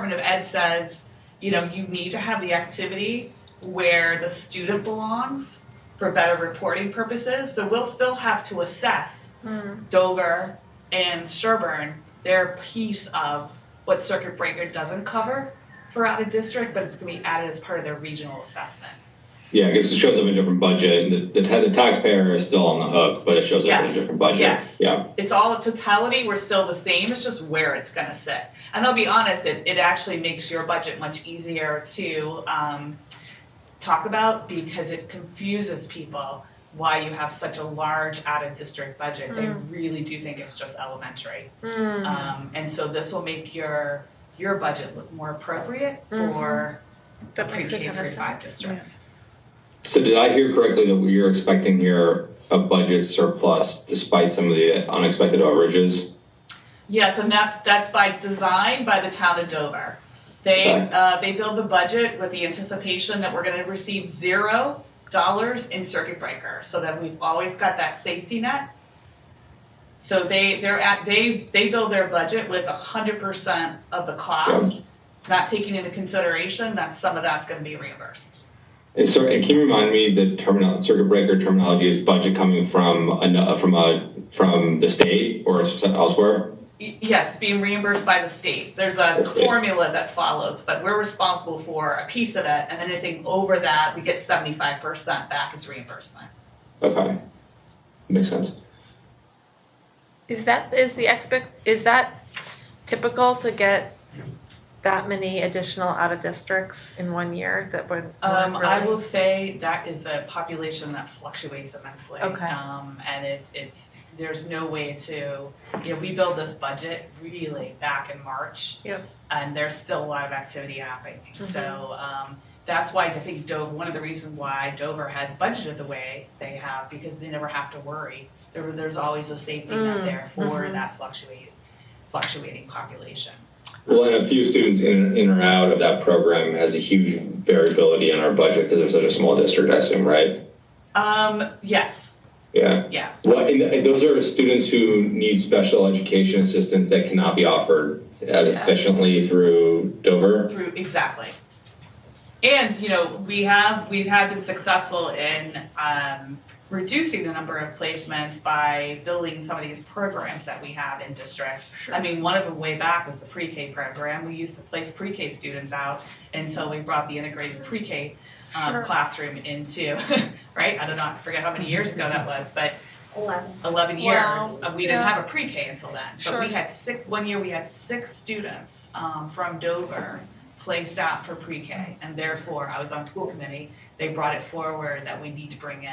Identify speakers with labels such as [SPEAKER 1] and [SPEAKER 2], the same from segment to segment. [SPEAKER 1] alternative ed says, you know, you need to have the activity where the student belongs for better reporting purposes. So we'll still have to assess
[SPEAKER 2] Hmm.
[SPEAKER 1] Dover and Sherburne, their piece of what Circuit Breaker doesn't cover for out of district, but it's going to be added as part of their regional assessment.
[SPEAKER 3] Yeah, because it shows up in a different budget, and the, the, ta- the taxpayer is still on the hook, but it shows up in
[SPEAKER 1] Yes.
[SPEAKER 3] a different budget.
[SPEAKER 1] Yes.
[SPEAKER 3] Yeah.
[SPEAKER 1] It's all totality, we're still the same, it's just where it's going to sit. And I'll be honest, it, it actually makes your budget much easier to um, talk about because it confuses people why you have such a large out of district budget. They
[SPEAKER 2] Mm.
[SPEAKER 1] really do think it's just elementary.
[SPEAKER 2] Hmm.
[SPEAKER 1] Um, and so this will make your, your budget look more appropriate for the
[SPEAKER 2] That makes a
[SPEAKER 1] pre-K
[SPEAKER 2] ton
[SPEAKER 1] through
[SPEAKER 2] of
[SPEAKER 1] five
[SPEAKER 2] sense.
[SPEAKER 1] district.
[SPEAKER 3] So did I hear correctly that you're expecting here a budget surplus despite some of the unexpected overages?
[SPEAKER 1] Yes, and that's, that's by design by the town of Dover. They,
[SPEAKER 3] Okay.
[SPEAKER 1] uh, they build the budget with the anticipation that we're gonna receive zero dollars in circuit breaker, so that we've always got that safety net. So they, they're at, they, they build their budget with hundred percent of the cost, not taking into consideration that some of that's gonna be reimbursed.
[SPEAKER 3] And so, and can you remind me the terminal circuit breaker terminology is budget coming from an, from a from the state or elsewhere?
[SPEAKER 1] Y- Yes, being reimbursed by the state. There's a
[SPEAKER 3] Okay.
[SPEAKER 1] formula that follows, but we're responsible for a piece of it, and then anything over that, we get seventy-five percent back as reimbursement.
[SPEAKER 3] Okay, makes sense.
[SPEAKER 2] Is that is the expect is that s- typical to get that many additional out of districts in one year that would
[SPEAKER 1] Um,
[SPEAKER 2] really?
[SPEAKER 1] I will say that is a population that fluctuates immensely.
[SPEAKER 2] Okay.
[SPEAKER 1] Um, and it, it's, there's no way to, you know, we build this budget really back in March.
[SPEAKER 2] Yep. Mm-hmm.
[SPEAKER 1] And there's still a lot of activity happening. So, um, that's why I think Dover, one of the reasons why Dover has budgeted the way they have, because they never have to worry. There, there's always a safety net
[SPEAKER 2] Mm,
[SPEAKER 1] there for
[SPEAKER 2] mhm.
[SPEAKER 1] that fluctuating, fluctuating population.
[SPEAKER 3] Well, and a few students in, in or out of that program has a huge variability in our budget because they're such a small district, I assume, right?
[SPEAKER 1] Um, yes,
[SPEAKER 3] Yeah.
[SPEAKER 1] yeah,
[SPEAKER 3] Well, and, and those are students who need special education assistance that cannot be offered as
[SPEAKER 1] Yeah.
[SPEAKER 3] efficiently through Dover.
[SPEAKER 1] through, exactly. And, you know, we have, we have been successful in, um, reducing the number of placements by building some of these programs that we have in district.
[SPEAKER 2] Sure.
[SPEAKER 1] I mean, one of them way back was the pre-K program. We used to place pre-K students out until we brought the integrated pre-K um,
[SPEAKER 2] Sure.
[SPEAKER 1] classroom into, right? I don't know, I forget how many years ago that was, but
[SPEAKER 4] 11.
[SPEAKER 1] 11 years.
[SPEAKER 2] Wow.
[SPEAKER 1] Uh, We didn't
[SPEAKER 2] Yeah.
[SPEAKER 1] have a pre-K until then.
[SPEAKER 2] Sure.
[SPEAKER 1] But we had six, one year we had six students um, from Dover placed out for pre-K. And therefore, I was on school committee, they brought it forward that we need to bring in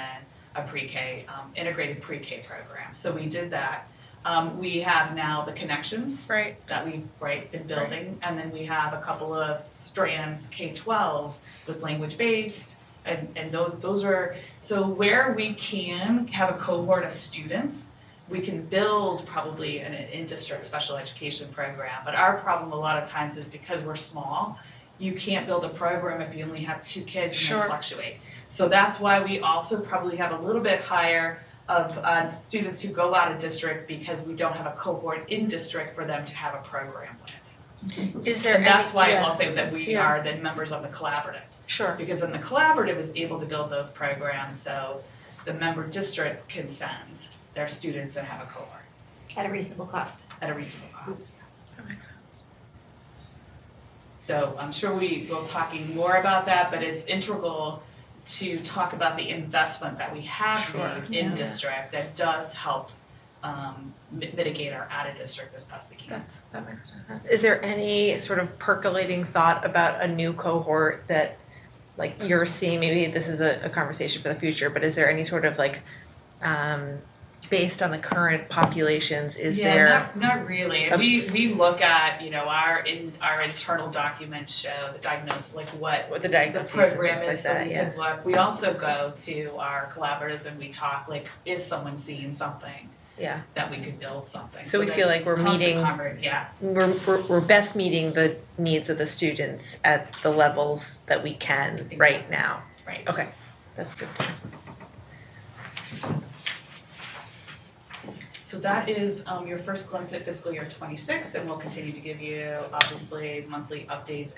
[SPEAKER 1] a pre-K, um, integrated pre-K program. So we did that. Um, We have now the connections
[SPEAKER 2] right
[SPEAKER 1] that we've, right, been building. And then we have a couple of strands, K-12 with language-based, and, and those, those are, so where we can have a cohort of students, we can build probably an in-district special education program. But our problem a lot of times is because we're small, you can't build a program if you only have two kids and
[SPEAKER 2] Sure.
[SPEAKER 1] they fluctuate. So that's why we also probably have a little bit higher of uh, students who go out of district because we don't have a cohort in district for them to have a program with.
[SPEAKER 2] is there
[SPEAKER 1] And that's
[SPEAKER 2] any,
[SPEAKER 1] why
[SPEAKER 2] yeah,
[SPEAKER 1] I'll think that we
[SPEAKER 2] Yeah.
[SPEAKER 1] are then members of the collaborative
[SPEAKER 2] sure
[SPEAKER 1] because then the collaborative is able to build those programs so the member district can send their students and have a cohort
[SPEAKER 4] At a reasonable cost.
[SPEAKER 1] at a reasonable cost.
[SPEAKER 2] that makes sense
[SPEAKER 1] So I'm sure we will talking more about that, but it's integral to talk about the investment that we have
[SPEAKER 2] Sure.
[SPEAKER 1] made in
[SPEAKER 2] Yeah.
[SPEAKER 1] district that does help um, mi- mitigate our out of district as best we can.
[SPEAKER 2] that's that makes sense is there any sort of percolating thought about a new cohort that like you're seeing maybe this is a, a conversation for the future but is there any sort of like um, based on the current populations is
[SPEAKER 1] yeah,
[SPEAKER 2] there
[SPEAKER 1] not, not really.
[SPEAKER 2] Um,
[SPEAKER 1] we we look at you know our in our internal documents show the diagnosis like what
[SPEAKER 2] what the
[SPEAKER 1] the
[SPEAKER 2] diagnoses and
[SPEAKER 1] program
[SPEAKER 2] things like
[SPEAKER 1] is, so
[SPEAKER 2] that
[SPEAKER 1] we
[SPEAKER 2] yeah
[SPEAKER 1] can look. We also go to our collaboratives and we talk, like, is someone seeing something
[SPEAKER 2] yeah
[SPEAKER 1] that we could build something?
[SPEAKER 2] So we feel
[SPEAKER 1] there's
[SPEAKER 2] like we're
[SPEAKER 1] constant
[SPEAKER 2] meeting-
[SPEAKER 1] conver- Yeah,
[SPEAKER 2] we're, we're, we're best meeting the needs of the students at the levels that we can right now.
[SPEAKER 1] right.
[SPEAKER 2] Okay, that's good.
[SPEAKER 1] So So that is um, your first glimpse at fiscal year 26, and we'll continue to give you, obviously, monthly updates